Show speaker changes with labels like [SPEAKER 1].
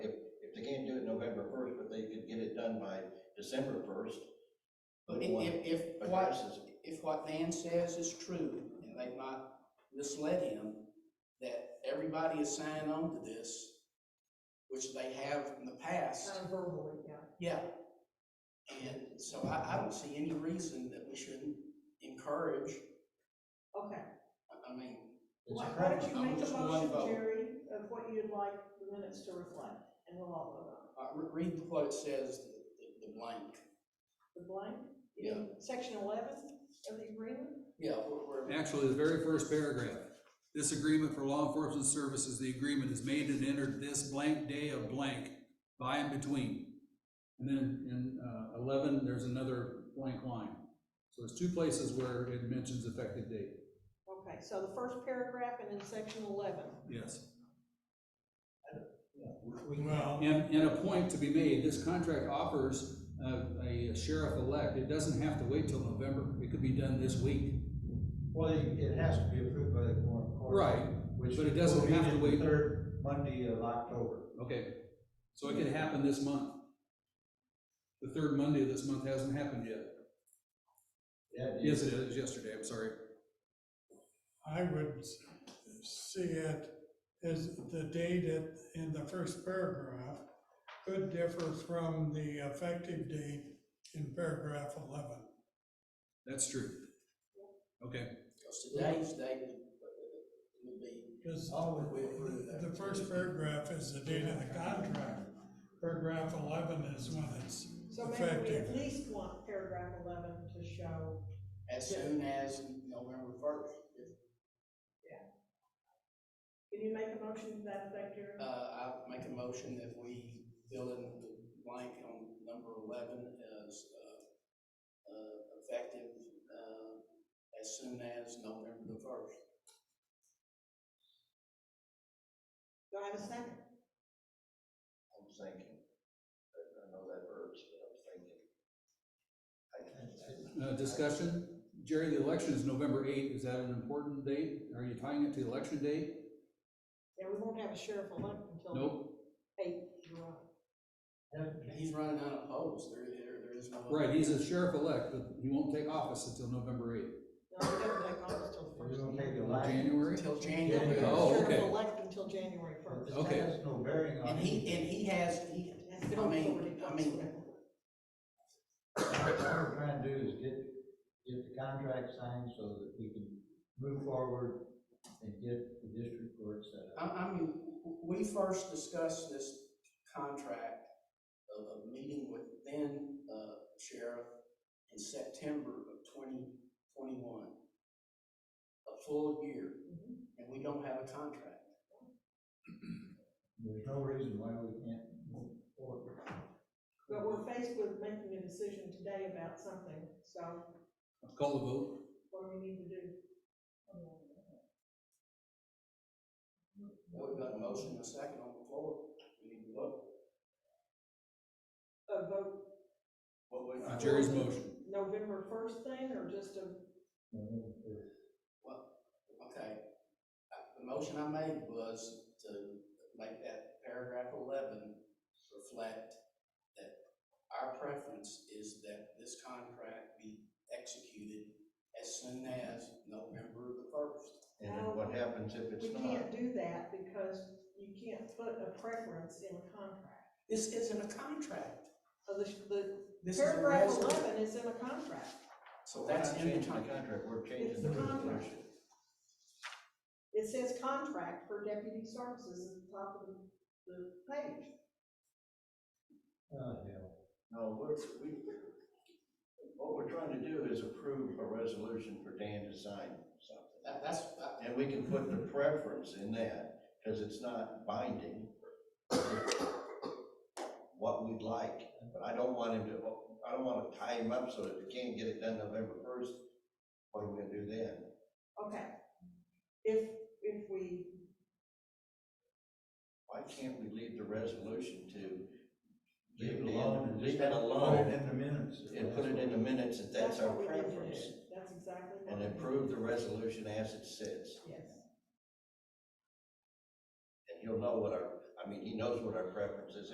[SPEAKER 1] done by December first. But one
[SPEAKER 2] If, if, if what,
[SPEAKER 1] addresses it.
[SPEAKER 2] if what Van says is true, and they've not misled him, that everybody is signed on to this, which they have in the past,
[SPEAKER 3] Kind of Uh, verbally, yeah.
[SPEAKER 2] yeah. And so I, I don't see any reason that we shouldn't encourage,
[SPEAKER 3] Okay,
[SPEAKER 2] I- I mean,
[SPEAKER 1] It's
[SPEAKER 3] why
[SPEAKER 1] a
[SPEAKER 3] why don't
[SPEAKER 1] preference.
[SPEAKER 3] you make
[SPEAKER 2] Just
[SPEAKER 3] a
[SPEAKER 2] one
[SPEAKER 3] motion,
[SPEAKER 2] vote.
[SPEAKER 3] Jerry, of what you'd like the minutes to reflect, and we'll all vote on it.
[SPEAKER 2] uh, re- read what it says, the, the blank.
[SPEAKER 3] The blank?
[SPEAKER 2] Yeah.
[SPEAKER 3] Section eleven of the agreement?
[SPEAKER 2] Yeah, we're, we're,
[SPEAKER 4] Actually, the very first paragraph, this agreement for law enforcement services, the agreement is made and entered this blank day of blank by and between. And then in uh, eleven, there's another blank line. So there's two places where it mentions effective date,
[SPEAKER 3] Okay, so the first paragraph and then section eleven.
[SPEAKER 4] yes.
[SPEAKER 5] Well,
[SPEAKER 4] And, and a point to be made, this contract offers uh, a sheriff-elect, it doesn't have to wait till November, it could be done this week.
[SPEAKER 6] Well, it it has to be approved by the court. court,
[SPEAKER 4] Right,
[SPEAKER 6] which
[SPEAKER 4] but it doesn't
[SPEAKER 6] will be
[SPEAKER 4] have to
[SPEAKER 6] the
[SPEAKER 4] wait.
[SPEAKER 6] Third Monday of October.
[SPEAKER 4] Okay, so it could happen this month. The third Monday of this month hasn't happened yet.
[SPEAKER 6] That
[SPEAKER 4] Yes,
[SPEAKER 6] is-
[SPEAKER 4] it is, yesterday, I'm sorry.
[SPEAKER 5] I would s- see it as the date at- in the first paragraph could differ from the effective date in paragraph eleven.
[SPEAKER 4] That's true. Okay,
[SPEAKER 2] because today's date would- would be
[SPEAKER 5] Because
[SPEAKER 2] Oh, we approve that.
[SPEAKER 5] the first paragraph is the date of the contract. Paragraph eleven is when it's
[SPEAKER 3] So maybe we at
[SPEAKER 5] Effective.
[SPEAKER 3] least want paragraph eleven to show,
[SPEAKER 2] as soon as November first.
[SPEAKER 3] can you make a motion to that effect, Jerry?
[SPEAKER 2] Uh, I make a motion that we fill in the blank on number eleven as, uh, uh, effective, uh, as soon as November the first.
[SPEAKER 3] Do I have a second?
[SPEAKER 1] I'm thinking, I I know that hurts, but I'm thinking. I can't-
[SPEAKER 4] uh, discussion. Jerry, the election is November eighth. Is that an important date? Are you tying it to the election date?
[SPEAKER 3] Yeah, we won't have a sheriff elect until
[SPEAKER 4] Nope.
[SPEAKER 3] eight, you're right.
[SPEAKER 2] He's running unopposed, there, there, there is no.
[SPEAKER 4] Right, he's a sheriff-elect, but he won't take office until November eighth.
[SPEAKER 3] No, we don't take office till the
[SPEAKER 6] We're
[SPEAKER 3] first.
[SPEAKER 6] gonna take a
[SPEAKER 4] Or
[SPEAKER 6] line.
[SPEAKER 4] January?
[SPEAKER 2] Until January.
[SPEAKER 6] Yeah.
[SPEAKER 4] Oh, okay.
[SPEAKER 3] Sheriff elect until January
[SPEAKER 6] But
[SPEAKER 3] first.
[SPEAKER 6] This
[SPEAKER 4] Okay.
[SPEAKER 6] has no bearing on.
[SPEAKER 2] And he, and he has, he, I mean, I mean,
[SPEAKER 6] What we're trying to do is get, get the contract signed so that we can move forward and get the district court set
[SPEAKER 2] I,
[SPEAKER 6] up.
[SPEAKER 2] I mean, we first discussed this contract of a meeting with then, uh, sheriff in September of twenty twenty-one. A full year, and we don't have a contract.
[SPEAKER 6] There's no reason why we can't move forward.
[SPEAKER 3] But we're faced with making a decision today about something, so
[SPEAKER 4] Call the vote.
[SPEAKER 3] what do we need to do?
[SPEAKER 2] Now We've got a motion, and a second on the floor, we need to vote.
[SPEAKER 3] A vote
[SPEAKER 2] What we-
[SPEAKER 4] Uh, Jerry's motion.
[SPEAKER 3] November first thing, or just a,
[SPEAKER 2] Okay, Uh, the motion I made was to make that paragraph eleven reflect that our preference is that this contract be executed as soon as November the first.
[SPEAKER 1] And then what happens if
[SPEAKER 3] we
[SPEAKER 1] it's not?
[SPEAKER 3] can't do that because you can't put a preference in a contract.
[SPEAKER 2] This isn't a contract.
[SPEAKER 3] So the, the
[SPEAKER 2] This is a
[SPEAKER 3] paragraph
[SPEAKER 2] resolution.
[SPEAKER 3] eleven is in a contract.
[SPEAKER 2] So
[SPEAKER 1] We're not
[SPEAKER 2] that's in the
[SPEAKER 1] changing
[SPEAKER 2] contract.
[SPEAKER 1] We're
[SPEAKER 3] It's
[SPEAKER 1] changing
[SPEAKER 3] the
[SPEAKER 1] the
[SPEAKER 3] contract.
[SPEAKER 1] resolution.
[SPEAKER 3] It says contract for deputy services at the top of the, the page.
[SPEAKER 6] Oh, hell.
[SPEAKER 1] No, we're, we, what we're trying to do is approve a resolution for Dan to sign something.
[SPEAKER 2] That, that's, uh,
[SPEAKER 1] And we can put the preference in that, because it's not binding. What we'd like, but I don't want him to, I don't wanna tie him up so that if he can't get it done November first, what are we gonna do then?
[SPEAKER 3] Okay. If, if we,
[SPEAKER 1] Why can't we leave the resolution to
[SPEAKER 6] Leave it
[SPEAKER 1] Dan-
[SPEAKER 6] alone and
[SPEAKER 1] Leave
[SPEAKER 6] just
[SPEAKER 1] it
[SPEAKER 6] put it
[SPEAKER 1] alone
[SPEAKER 6] in the minutes.
[SPEAKER 1] and put it in the minutes that
[SPEAKER 3] that's
[SPEAKER 1] that's our
[SPEAKER 3] what we need to do,
[SPEAKER 1] preference?
[SPEAKER 3] that's exactly what.
[SPEAKER 1] And
[SPEAKER 3] we need to
[SPEAKER 1] approve the
[SPEAKER 3] do.
[SPEAKER 1] resolution as it sits.
[SPEAKER 3] Yes.
[SPEAKER 1] And he'll know what our, I mean, he knows what our preference is